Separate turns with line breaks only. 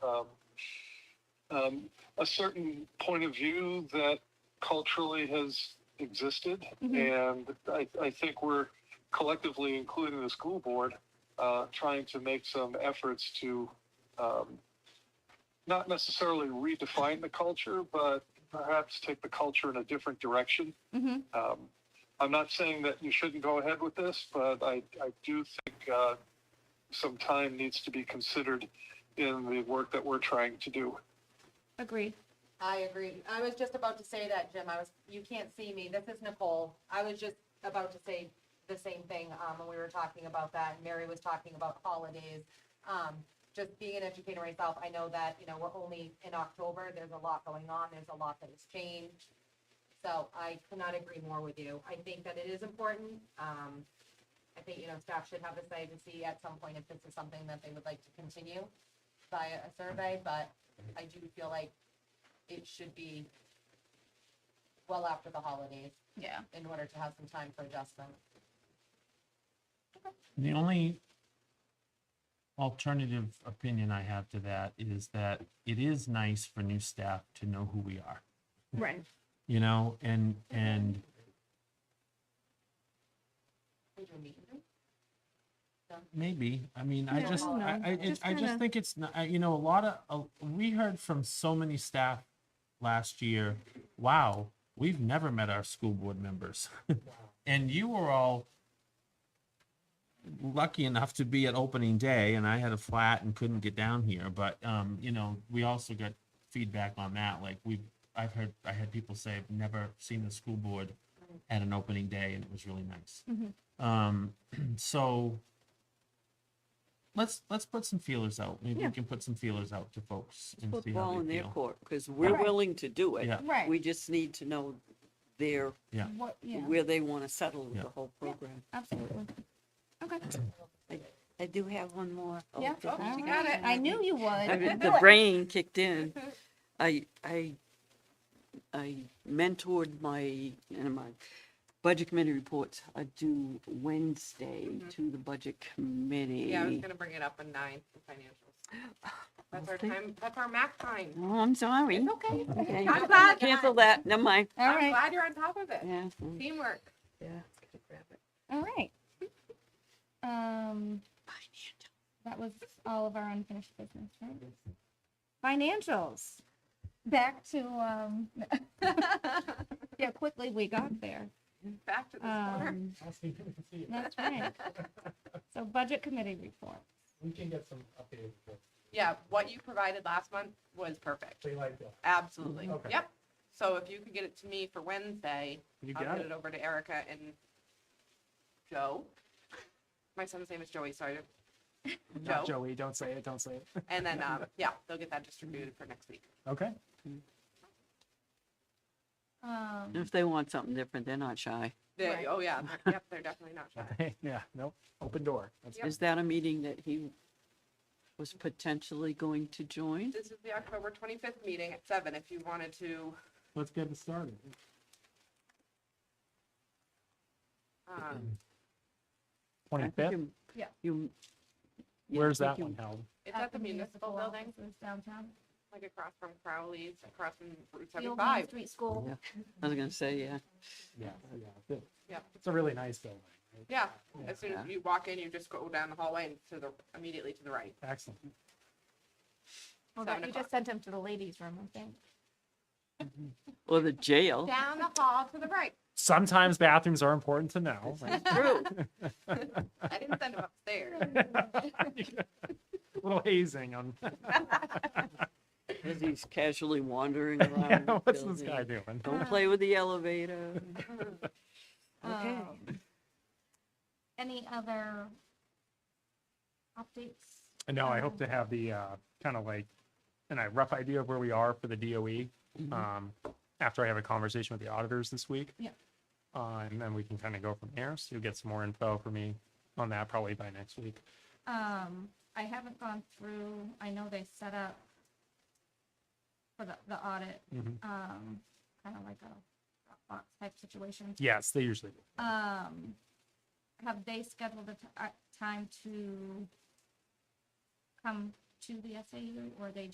um, a certain point of view that culturally has existed. And I, I think we're collectively, including the school board, uh, trying to make some efforts to um, not necessarily redefine the culture, but perhaps take the culture in a different direction.
hmm
Um, I'm not saying that you shouldn't go ahead with this, but I, I do think uh, some time needs to be considered in the work that we're trying to do.
Agreed.
I agree. I was just about to say that, Jim. I was, you can't see me. This is Nicole. I was just about to say the same thing, um, when we were talking about that. and Mary was talking about holidays. Um, just being an educator myself, I know that, you know, we're only in October. There's a lot going on. There's a lot that has changed. So I could not agree more with you. I think that it is important. Um, I think, you know, staff should have a say to see at some point if this is something that they would like to continue via a survey, but I do feel like it should be well after the holidays
Yeah.
in order to have some time for adjustment.
The only alternative opinion I have to that is that it is nice for new staff to know who we are,
Right.
you know, and, and
Did you meet him?
maybe, I mean, I
Yeah,
just,
I don't
I,
know.
I, it-
Just
I
kinda-
just think it's, not- I- you know, a lot of, uh, we heard from so many staff last year, wow, we've never met our school board members. And you were all lucky enough to be at opening day and I had a flat and couldn't get down here, but um, you know, we also got feedback on that. Like we I've heard I had people say I've never seen the school board at an opening day and it was really nice.
Mhm.
Mm-hmm.
Um so let's let's put some feelers out. Maybe
Yeah.
we can put some feelers out to folks and
put
see
the
how
ball in
they
their
feel.
court, because we're
Right.
willing to do it.
Yeah.
Right.
We just need to know their,
Yeah.
What, yeah,
where they want to settle with
Yeah.
the whole program.
absolutely. Okay.
I do have one more. Oh,
Yeah,
God.
you got it. I knew you would.
I mean,
Do
the
it.
brain kicked in. I, I, I mentored my, and my budget committee reports are due Wednesday to the budget committee.
Yeah, I was gonna bring it up on nine for financials. That's our
Okay.
time, that's our math time.
Oh, I'm sorry.
It's okay.
Okay.
I'm glad.
Cancel that, never mind.
All
I'm
right,
glad you're on top of it.
Yeah, mm,
Teamwork.
yeah. gotta grab it.
all right. Um, that was all of our unfinished business, right? Financials. Back to, um, yeah, quickly we got there.
Back to the corner.
Um, that's right. So budget committee report.
We can get some updated, uh, reports.
Yeah, what you provided last month was perfect.
they like that.
Absolutely.
Okay.
Yep. So if you could get it to me for Wednesday,
You
I'll
got
get
it.
it over to Erica and Joe. My son's name is Joey, sorry.
Not
Joe.
Joey, don't say it, don't say it.
And then, um, yeah, they'll get that distributed for next week.
Okay.
Um,
If they want something different, they're not shy.
They,
Right.
oh yeah, they're- yep, they're definitely not shy.
Yeah, nope, open door. That's
Yep.
Is that a meeting that he was potentially going to join?
This is the October twenty-fifth meeting at seven, if you wanted to,
Let's get it started.
um,
I think
twenty-fifth,
you-
Yeah.
You. yeah, I
where's
think
that
you-
one held?
it's at the municipal building.
offices Downtown.
like across from Crowley's, across from Route
The old Main
75.
Street School.
Yeah. I was gonna say, yeah,
Yeah, yeah. good.
Yep.
It's a really nice building. right?
Yeah,
Yeah,
as soon as
Yeah.
you walk in, you just go down the hallway and to the, immediately to the right.
Excellent.
Well, that-
Seven
you just
o'clock.
sent him to the ladies' room, I think.
or the jail.
Down the hall to the right.
Sometimes bathrooms are important to know. right?
True.
I didn't send him upstairs.
Little hazing on,
As he's casually wandering
yeah,
around. the
what's this guy
building.
doing?
Don't play with the elevator.
Okay.
Um,
Any other updates?
No, I hope to have the, uh, kind of like, and a rough idea of where we are for the DOE, um, after I have a conversation with the auditors this week.
Yeah.
Uh, and then we can kind of go from there. So you'll get some more info for me on that probably by next week.
Um, I haven't gone through, I know they set up for the, the audit,
Mhm.
um, kind of like a Dropbox type situation.
Yes, they usually do.
Um, have they scheduled a t- a time to come to the SAU or they